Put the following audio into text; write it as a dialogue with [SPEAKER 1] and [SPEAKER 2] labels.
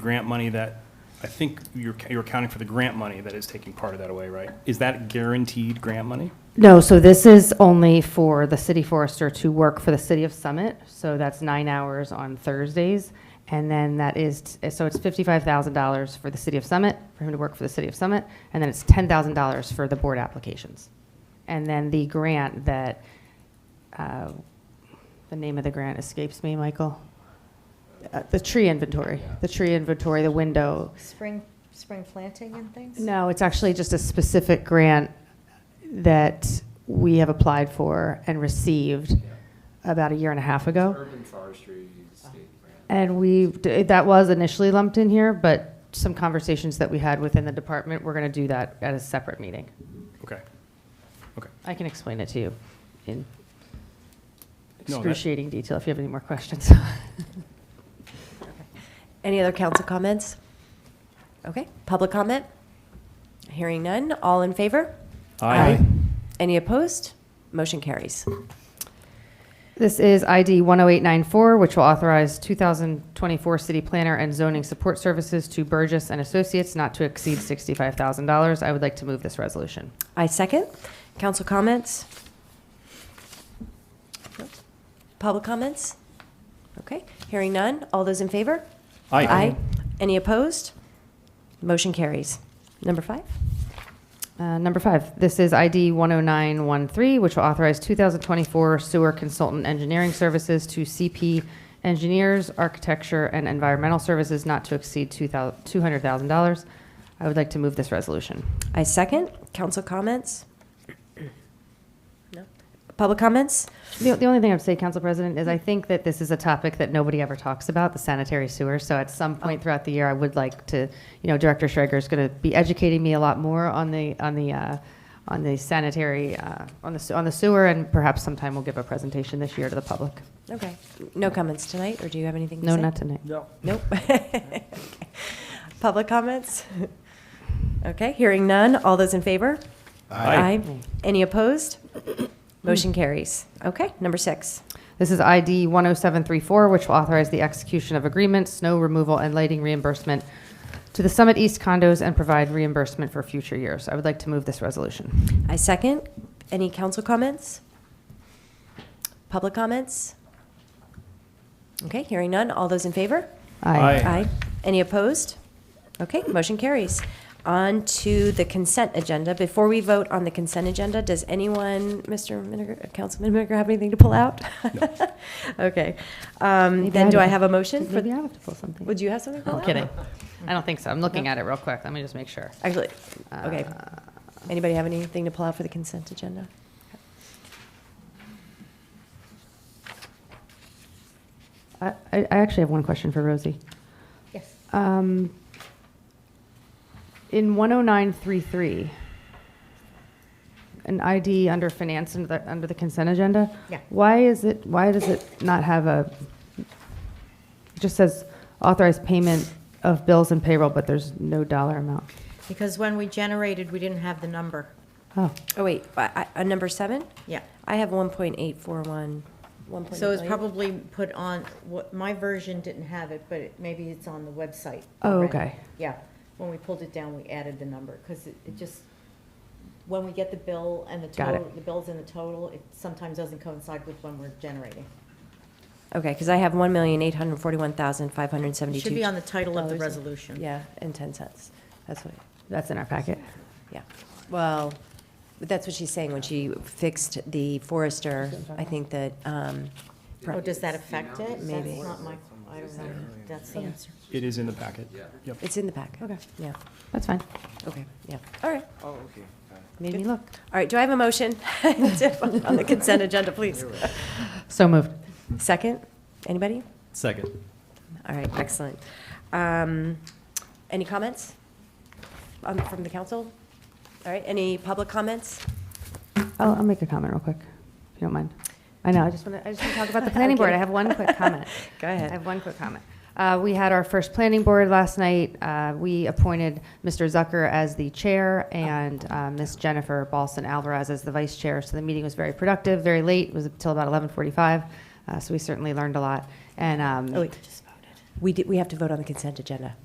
[SPEAKER 1] grant money that, I think you're, you're accounting for the grant money that is taking part of that away, right? Is that guaranteed grant money?
[SPEAKER 2] No, so this is only for the city forester to work for the city of Summit, so that's nine hours on Thursdays. And then that is, so it's fifty-five thousand dollars for the city of Summit, for him to work for the city of Summit, and then it's ten thousand dollars for the board applications. And then the grant that, uh, the name of the grant escapes me, Michael. Uh, The tree inventory, the tree inventory, the window,
[SPEAKER 3] Spring, spring planting and things?
[SPEAKER 2] no, it's actually just a specific grant that we have applied for and received about a year and a half ago.
[SPEAKER 4] Urban forestry state grant.
[SPEAKER 2] And we, that was initially lumped in here, but some conversations that we had within the department, we're going to do that at a separate meeting.
[SPEAKER 1] Okay. Okay.
[SPEAKER 2] I can explain it to you in
[SPEAKER 1] No, that-
[SPEAKER 2] excruciating detail if you have any more questions.
[SPEAKER 5] Any other council comments? Okay, public comment? Hearing none, all in favor?
[SPEAKER 2] Aye. Aye.
[SPEAKER 5] Any opposed? Motion carries.
[SPEAKER 2] This is ID 10894, which will authorize 2024 city planner and zoning support services to Burgess and Associates not to exceed $65,000. I would like to move this resolution.
[SPEAKER 5] I second. Council comments? Nope. Public comments? Okay, hearing none, all those in favor?
[SPEAKER 1] Aye.
[SPEAKER 5] Any opposed? Motion carries. Number five?
[SPEAKER 2] Uh, Number five, this is ID 10913, which will authorize 2024 sewer consultant engineering services to CP Engineers, Architecture, and Environmental Services not to exceed $2,000 $200,000. I would like to move this resolution.
[SPEAKER 5] I second. Council comments? No. Public comments?
[SPEAKER 2] The, the only thing I'd say, Council President, is I think that this is a topic that nobody ever talks about, the sanitary sewer. So at some point throughout the year, I would like to, you know, Director Schrager is going to be educating me a lot more on the, on the, uh, on the sanitary, uh, on the, se- on the sewer, and perhaps sometime we'll give a presentation this year to the public.
[SPEAKER 5] Okay. No comments tonight, or do you have anything to
[SPEAKER 2] No,
[SPEAKER 5] say?
[SPEAKER 2] not tonight.
[SPEAKER 1] No.
[SPEAKER 5] Nope. Okay. Public comments? Okay, hearing none. All those in favor? Any opposed? Motion carries. Okay, number six.
[SPEAKER 2] This is ID 10734, which will authorize the execution of agreements, snow removal, and lighting reimbursement to the Summit East condos and provide reimbursement for future years. I would like to move this resolution.
[SPEAKER 5] I second. Any council comments? Public comments? Okay, hearing none. All those in favor?
[SPEAKER 1] Aye.
[SPEAKER 5] Any opposed? Okay, motion carries. On to the consent agenda. Before we vote on the consent agenda, does anyone, Mr. Miniger, Councilman Miniger, have anything to pull out? Okay. Um, Then do I have a motion? for?
[SPEAKER 2] Maybe I have to pull something.
[SPEAKER 5] Would you have something to pull
[SPEAKER 2] I'm
[SPEAKER 5] out?
[SPEAKER 2] kidding. I don't think so. I'm looking at it real quick. Let me just make sure. Uh,
[SPEAKER 5] Actually, okay. Anybody have anything to pull out for the consent agenda?
[SPEAKER 2] I, I I actually have one question for Rosie.
[SPEAKER 3] Yes.
[SPEAKER 2] Um, in 10933, an ID under finance under the, under the consent agenda.
[SPEAKER 3] Yeah.
[SPEAKER 2] Why is it? Why does it not have a? It just says authorized payment of bills and payroll, but there's no dollar amount.
[SPEAKER 3] Because when we generated, we didn't have the number.
[SPEAKER 2] Oh,
[SPEAKER 5] Oh, wait, I- I- uh, number seven?
[SPEAKER 3] Yeah.
[SPEAKER 5] I have 1.841, 1.8
[SPEAKER 3] So it's
[SPEAKER 5] million.
[SPEAKER 3] probably put on, what, my version didn't have it, but it- maybe it's on the website.
[SPEAKER 2] Oh,
[SPEAKER 3] already.
[SPEAKER 2] okay.
[SPEAKER 3] Yeah. When we pulled it down, we added the number, because it, it just, when we get the bill and the
[SPEAKER 2] Got it.
[SPEAKER 3] total, the bills and the total, it sometimes doesn't coincide with when we're generating.
[SPEAKER 5] Okay, because I have 1,841,572.
[SPEAKER 3] Should be on the title of the
[SPEAKER 5] dollars.
[SPEAKER 3] resolution.
[SPEAKER 5] Yeah, and 10 cents. That's what,
[SPEAKER 2] that's in our packet.
[SPEAKER 5] yeah. Well, that's what she's saying, when she fixed the forester, I think that, um, pro-
[SPEAKER 3] Oh, does that affect it?
[SPEAKER 5] Maybe.
[SPEAKER 3] That's not my, I don't know. That's the answer.
[SPEAKER 1] It is in the packet.
[SPEAKER 4] Yeah.
[SPEAKER 1] Yep.
[SPEAKER 5] it's in the pack.
[SPEAKER 2] Okay.
[SPEAKER 5] Yeah,
[SPEAKER 2] That's fine.
[SPEAKER 5] okay, yeah. All right,
[SPEAKER 4] Oh, okay. Got it.
[SPEAKER 2] Made me look.
[SPEAKER 5] all right, do I have a motion to- on the consent agenda, please?
[SPEAKER 2] So moved.
[SPEAKER 5] Second, anybody?
[SPEAKER 1] Second.
[SPEAKER 5] All right, excellent. Um, Any comments um, from the council? All right, any public comments?
[SPEAKER 2] I'll, I'll make a comment real quick, if you don't mind. I know, I just want to, I just want to talk about the planning board. I have one quick comment.
[SPEAKER 5] Go ahead.
[SPEAKER 2] I have one quick comment. Uh, we had our first planning board last night. Uh, we appointed Mr. Zucker as the chair and uh, Ms. Jennifer Balson Alvarez as the vice chair. So the meeting was very productive, very late. It was until about 11:45. Uh, so we certainly learned a lot. And um,
[SPEAKER 5] Oh, wait. We did, we have to vote on the consent agenda.